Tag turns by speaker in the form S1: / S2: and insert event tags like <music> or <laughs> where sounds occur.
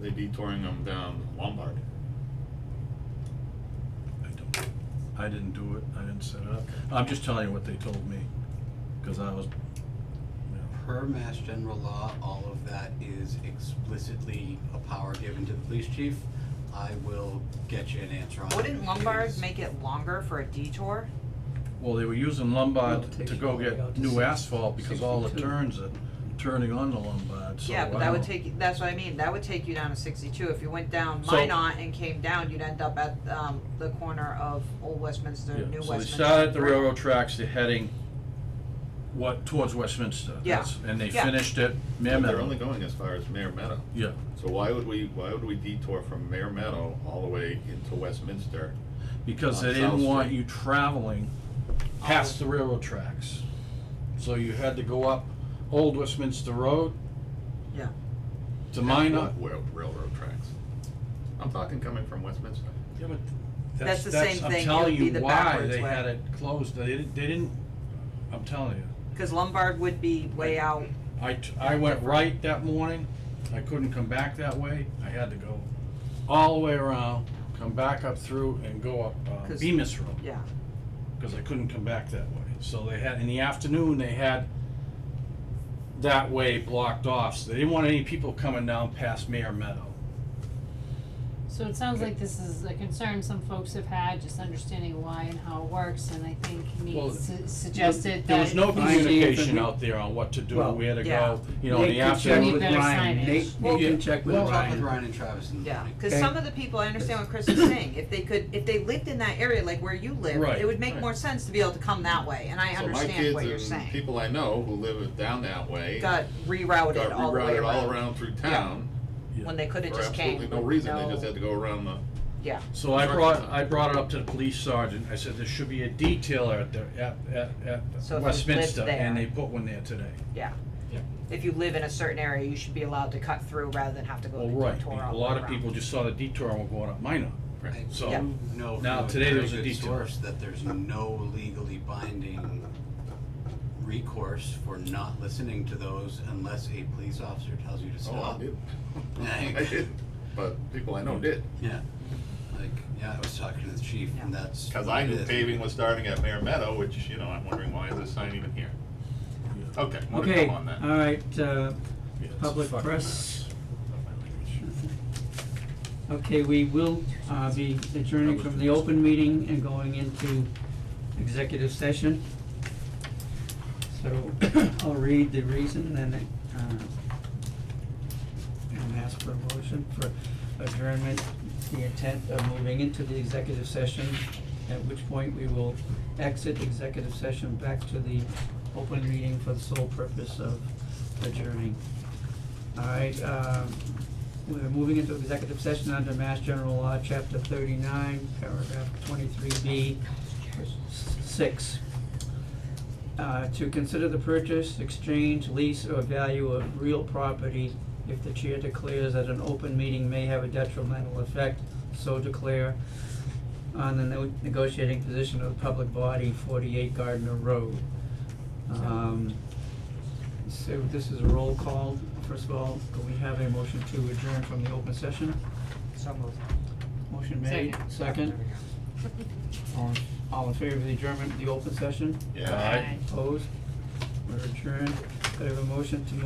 S1: They'd be touring them down Lombard.
S2: I don't, I didn't do it, I didn't set it up. I'm just telling you what they told me, because I was, you know,
S3: Per Mass General Law, all of that is explicitly a power given to the police chief. I will get you an answer on it.
S4: Wouldn't Lombard
S3: It
S4: make it longer for a detour?
S2: well, they were using Lombard
S5: Well, it
S2: to
S5: takes
S2: go
S5: you all the way out
S2: get
S5: to
S2: new
S5: six-
S2: asphalt, because all the
S5: 62.
S2: turns are turning on the Lombard, so
S4: Yeah, but that
S2: I
S4: would
S2: don't-
S4: take, you- that's what I mean, that would take you down to sixty-two, if you went down
S2: So-
S4: Minot and came down, you'd end up at, um, the corner of Old Westminster,
S2: Yeah,
S4: New Westminster.
S2: So they start at the
S4: right?
S2: railroad tracks, they're heading what, towards Westminster.
S4: Yeah,
S2: that's- And they
S4: yeah.
S2: finished at Mare
S1: But They're
S2: Meadow.
S1: only going as far as Mare Meadow.
S2: Yeah,
S1: So why would we, why would we detour from Mare Meadow all the way into Westminster?
S2: because
S1: On
S2: they
S1: South
S2: didn't want
S1: Street.
S2: you traveling past
S4: Oh.
S2: the railroad tracks. So you had to go up Old Westminster Road
S4: Yeah,
S2: to Minot.
S1: Not rail- railroad tracks. I'm talking coming from Westminster.
S2: Yeah, but that's,
S4: That's the
S2: that's,
S4: same
S2: I'm
S4: thing, it
S2: telling
S4: would be
S2: you
S4: the
S2: why
S4: backwards
S2: they
S4: way.
S2: had it closed, they didn't, they didn't, I'm telling you.
S4: cause Lombard would be way out,
S2: I, t- I went right that morning, I couldn't come back that way, I had to go all the way around, come back up through and go up uh,
S4: 'Cause-
S2: Bemis Road.
S4: yeah,
S2: Cause I couldn't come back that way, so they had, in the afternoon, they had that way blocked off, so they didn't want any people coming down past Mayor Meadow.
S6: So it sounds like this is a concern some folks have had, just understanding why and how it works, and I think
S2: Well,
S6: Nate su- suggested that.
S2: There was no
S6: we should-
S2: communication out there on what to do,
S5: Well,
S2: where to
S4: yeah.
S2: go, you know, in the afternoon.
S6: Need better signage.
S5: Nate,
S4: Well,
S5: Nate can check with
S2: well,
S3: We'll talk with
S5: Ryan.
S3: Ryan and Travis in the
S4: yeah,
S3: morning.
S4: cause
S5: Okay.
S4: some of the people, I understand what Chris is
S1: <coughs>
S4: saying, if they could, if they lived in that area, like where you live,
S2: Right,
S4: it would make
S2: right.
S4: more sense to be able to come that way, and I understand what you're
S1: So my kids and
S4: saying.
S1: people I know who live down that way.
S4: Got rerouted all the
S1: Got
S4: way
S1: rerouted all
S4: around,
S1: around through town
S2: Yeah.
S4: when they could've
S1: for
S4: just came,
S1: absolutely
S4: with
S1: no
S4: no,
S1: reason. They just had to go around the,
S4: yeah,
S2: So I
S1: Sure.
S2: brought, I brought it up to the police sergeant, I said, there should be a detailer at the, at, at,
S4: So
S2: at
S4: if you
S2: Westminster,
S4: lived
S2: and
S4: there-
S2: they put one there today.
S4: yeah.
S2: Yeah.
S4: If you live in a certain area, you should be allowed to cut through rather than have to go the
S2: Well, right,
S4: detour all
S2: a
S4: the way
S2: lot of
S4: around.
S2: people just saw the detour and were going up Minot,
S3: I
S2: so.
S4: Yeah.
S3: do know
S2: Now,
S3: from
S2: today
S3: a
S2: there
S3: very
S2: was a
S3: good
S2: detail.
S3: source that there's no legally binding recourse for not listening to those unless a police officer tells you to
S1: oh, I
S3: stop.
S1: did.
S3: Like-
S1: <laughs> I did, but people I know did,
S3: Yeah, like, yeah, I was talking to the chief and that's.
S1: cause I knew
S3: Yeah.
S1: paving was starting at Mare Meadow, which, you know, I'm wondering why is this sign even here? Okay, I'm gonna
S5: Okay,
S1: come on that.
S5: all right, uh,
S2: Yeah, it's a
S5: Public
S2: fucking
S5: press.
S2: mess.
S5: okay, we will, uh, be adjourning from the open meeting and going into executive session. So <coughs> I'll read the reason and, uh, and ask for a motion for adjournment, the intent of moving into the executive session, at which point we will exit executive session back to the open meeting for the sole purpose of adjourning. All right, um, we're moving into executive session under Mass General Law, Chapter thirty-nine, paragraph twenty-three B, six. Uh, to consider the purchase, exchange, lease, or value of real property if the chair declares that an open meeting may have a detrimental effect, so declare on the no- negotiating position of the public body, forty-eight Gardner Road. Um, so this is a roll call. First of all, do we have a motion to adjourn from the open session?
S4: So moved.
S5: Motion made, second. All in- All in favor of the adjournment of the open session?
S1: Yeah, I-
S2: Aye.
S5: Opposed? We're adjourned. Could I have a motion to move